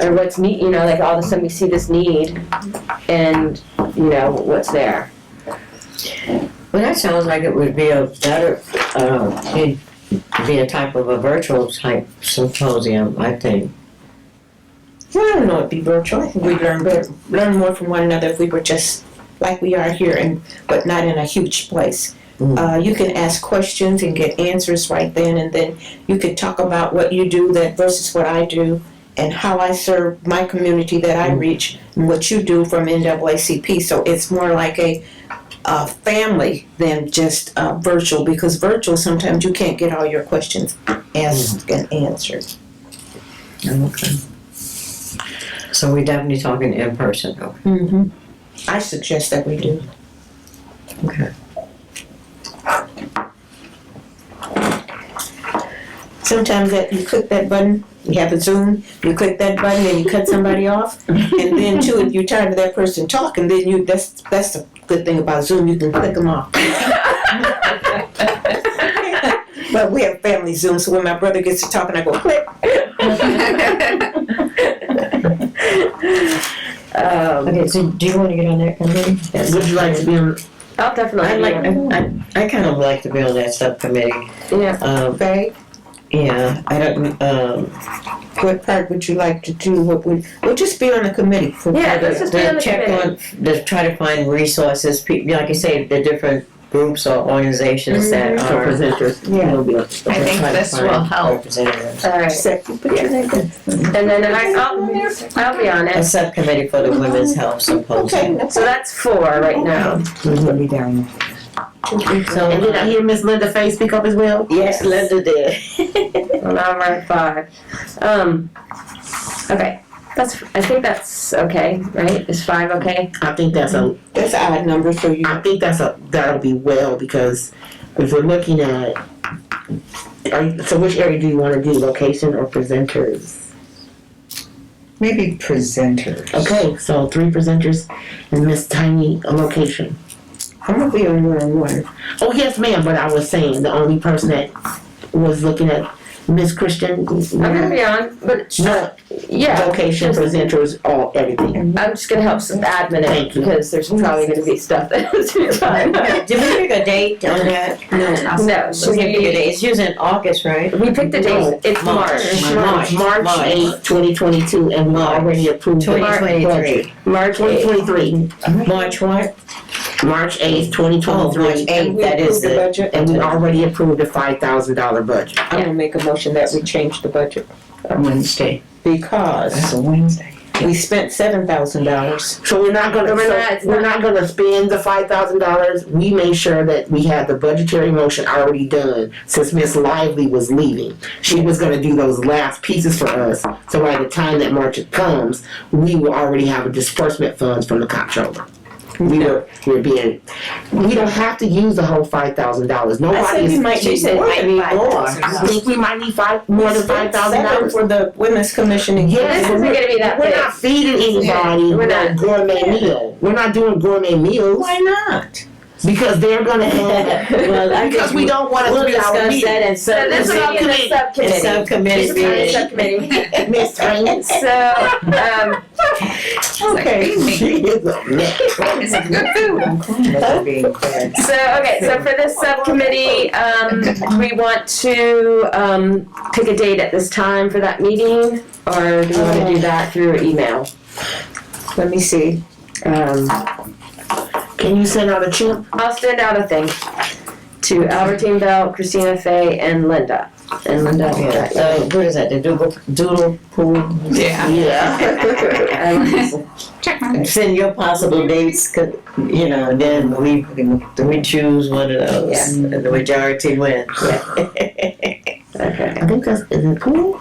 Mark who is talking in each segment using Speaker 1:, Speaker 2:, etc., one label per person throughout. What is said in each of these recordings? Speaker 1: or what's need, you know, like all of a sudden we see this need and, you know, what's there.
Speaker 2: Well, that sounds like it would be a better, uh, it'd be a type of a virtual type symposium, I think.
Speaker 3: Well, I don't know, it'd be virtual. I think we'd learn better, learn more from one another if we were just like we are here, and but not in a huge place.
Speaker 2: Mm.
Speaker 3: Uh, you can ask questions and get answers right then, and then you could talk about what you do that versus what I do, and how I serve my community that I reach, and what you do from NAACP. So it's more like a, a family than just uh, virtual, because virtual sometimes you can't get all your questions asked and answered.
Speaker 2: Okay. So we definitely talking in person, though.
Speaker 3: Mm-hmm. I suggest that we do.
Speaker 2: Okay.
Speaker 3: Sometimes that you click that button, you have a Zoom, you click that button and you cut somebody off. And then too, if you're tired of that person talking, then you that's that's the good thing about Zoom, you can click them off. but we have family Zoom, so when my brother gets to talking, I go click.
Speaker 1: Um,
Speaker 2: Okay, so do you want to get on that committee? Would you like to be on?
Speaker 1: I'll
Speaker 2: I
Speaker 1: definitely,
Speaker 2: like,
Speaker 1: yeah.
Speaker 2: I, I kind of like to be on that subcommittee.
Speaker 1: yeah.
Speaker 2: Um,
Speaker 3: Okay.
Speaker 2: yeah, I don't, um,
Speaker 3: What part would you like to do? What would we'll just be on the committee for
Speaker 1: Yeah, let's just be on
Speaker 2: to
Speaker 1: the
Speaker 2: check
Speaker 1: committee.
Speaker 2: on, to try to find resources, pe- like you say, the different groups or organizations that
Speaker 3: Mhm.
Speaker 2: are.
Speaker 4: presenters.
Speaker 3: Yeah.
Speaker 4: will be up.
Speaker 5: I think
Speaker 2: try to
Speaker 5: this
Speaker 2: find
Speaker 5: will help.
Speaker 2: representatives.
Speaker 1: All right,
Speaker 3: Second, put your name down.
Speaker 1: and then I, I'll, I'll be on
Speaker 2: A
Speaker 1: it.
Speaker 2: subcommittee for the women's
Speaker 6: Oh,
Speaker 2: health
Speaker 3: Okay,
Speaker 2: symposium.
Speaker 3: that's
Speaker 1: So that's four right now.
Speaker 4: And did I hear Miss Linda Faye speak up as well?
Speaker 1: Yes,
Speaker 4: Linda did.
Speaker 1: Well, now we're at five. Um, okay, that's, I think that's okay, right? Is five okay?
Speaker 4: I think that's a,
Speaker 3: that's an odd number for you.
Speaker 4: I think that's a, that'll be well, because if we're looking at, are you- so which area do you wanna do, location or presenters?
Speaker 6: Maybe presenters.
Speaker 4: Okay, so three presenters and Miss Tiny, a location.
Speaker 3: I'm gonna be on one on one.
Speaker 4: Oh, yes, ma'am, but I was saying, the only person that was looking at Miss Christian,
Speaker 1: I'm gonna be on, but,
Speaker 4: no,
Speaker 1: yeah,
Speaker 4: location, presenters, all, everything.
Speaker 1: I'm just gonna help some admin it
Speaker 4: Thank you.
Speaker 1: because there's probably gonna be stuff that has to be done.
Speaker 2: Did we pick a date on that?
Speaker 1: No,
Speaker 2: We didn't pick a date, it's usually in August, right?
Speaker 1: We picked the date, it's March.
Speaker 2: March.
Speaker 4: March eighth, twenty twenty-two, and we already approved. the
Speaker 2: Twenty
Speaker 4: budget.
Speaker 2: twenty-three.
Speaker 1: March
Speaker 4: Twenty
Speaker 1: eighth.
Speaker 4: twenty-three,
Speaker 2: March what?
Speaker 4: March eighth, twenty
Speaker 2: Oh, March
Speaker 4: twenty-three,
Speaker 2: eighth, that is
Speaker 3: the
Speaker 2: it.
Speaker 3: budget.
Speaker 4: and we already approved a five thousand dollar budget.
Speaker 3: I'm gonna make a motion that we change the budget
Speaker 6: Wednesday. That's
Speaker 3: because
Speaker 6: a Wednesday.
Speaker 3: we spent seven thousand dollars.
Speaker 4: So we're not gonna,
Speaker 1: We're
Speaker 4: so
Speaker 1: not- it's
Speaker 4: we're not gonna spend the five thousand dollars, we made sure that we had the budgetary motion already done, since Miss Lively was leaving. She was gonna do those last pieces for us, so by the time that March comes, we will already have a disbursement funds from the comptroller. We were, we were being, we don't have to use the whole five thousand dollars, nobody is.
Speaker 3: might
Speaker 2: She said might be more.
Speaker 4: I think we might need five, more than five thousand dollars.
Speaker 3: for the women's commission. and-
Speaker 4: Yes,
Speaker 1: This isn't gonna be that
Speaker 4: We're not
Speaker 1: big.
Speaker 4: feeding anybody
Speaker 1: We're
Speaker 4: no
Speaker 1: not.
Speaker 4: gourmet meal, we're not doing gourmet meals.
Speaker 3: Why not?
Speaker 4: Because they're gonna have,
Speaker 2: Well, I
Speaker 4: because
Speaker 2: think
Speaker 4: we don't want
Speaker 2: We'll
Speaker 4: to be our
Speaker 2: discuss
Speaker 4: meeting.
Speaker 2: that in
Speaker 1: So this will be
Speaker 2: subcommittee.
Speaker 1: in the
Speaker 2: In
Speaker 1: subcommittee.
Speaker 2: subcommittee
Speaker 1: This will be in the
Speaker 2: meeting.
Speaker 1: subcommittee.
Speaker 4: Miss Twain,
Speaker 1: So, um,
Speaker 3: Okay.
Speaker 4: she is a mess.
Speaker 5: It's a good food.
Speaker 6: That'll be good.
Speaker 1: so, okay, so for this subcommittee, um, we want to, um, pick a date at this time for that meeting? Or do we wanna do that through email?
Speaker 3: Let me see.
Speaker 1: Um,
Speaker 4: Can you send out a chip?
Speaker 1: I'll send out a thing to Albertine Bell, Christina Fay, and Linda. And Linda.
Speaker 2: Yeah, uh, what is that, the doodle, doodle pool?
Speaker 5: Yeah.
Speaker 4: Yeah.
Speaker 1: Um,
Speaker 5: Check my.
Speaker 2: Send your possible dates, 'cause, you know, then we, we choose one of
Speaker 1: Yeah.
Speaker 2: those, and the majority wins.
Speaker 1: Okay.
Speaker 4: I think that's, is it cool?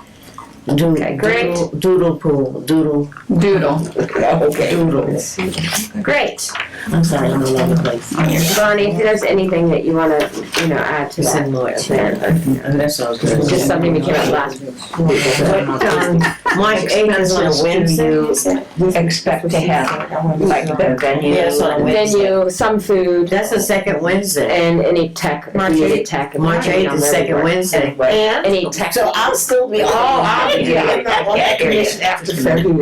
Speaker 2: Doodle-
Speaker 1: Okay, great.
Speaker 2: doodle- Doodle pool, doodle,
Speaker 5: Doodle.
Speaker 2: doodles.
Speaker 1: Great.
Speaker 4: I'm sorry, I'm all over the place.
Speaker 1: Bonnie, if there's anything that you wanna, you know, add to that,
Speaker 2: Send more to
Speaker 1: then,
Speaker 2: that. That sounds good.
Speaker 1: just something we came up last
Speaker 2: Um, March eighth is on a Wednesday.
Speaker 6: Expect to have, like, the venue.
Speaker 2: Yes, on a Wednesday.
Speaker 1: venue, some food,
Speaker 2: That's the second Wednesday.
Speaker 1: and any tech, if
Speaker 2: March
Speaker 1: you need
Speaker 2: eighth-
Speaker 1: tech.
Speaker 2: March
Speaker 1: you
Speaker 2: eighth
Speaker 1: know,
Speaker 2: is
Speaker 1: that'd be
Speaker 2: second
Speaker 1: great.
Speaker 2: Wednesday.
Speaker 6: And
Speaker 1: Any tech.
Speaker 4: So I'll still be, oh, I'll be, I'm not on that commission after February.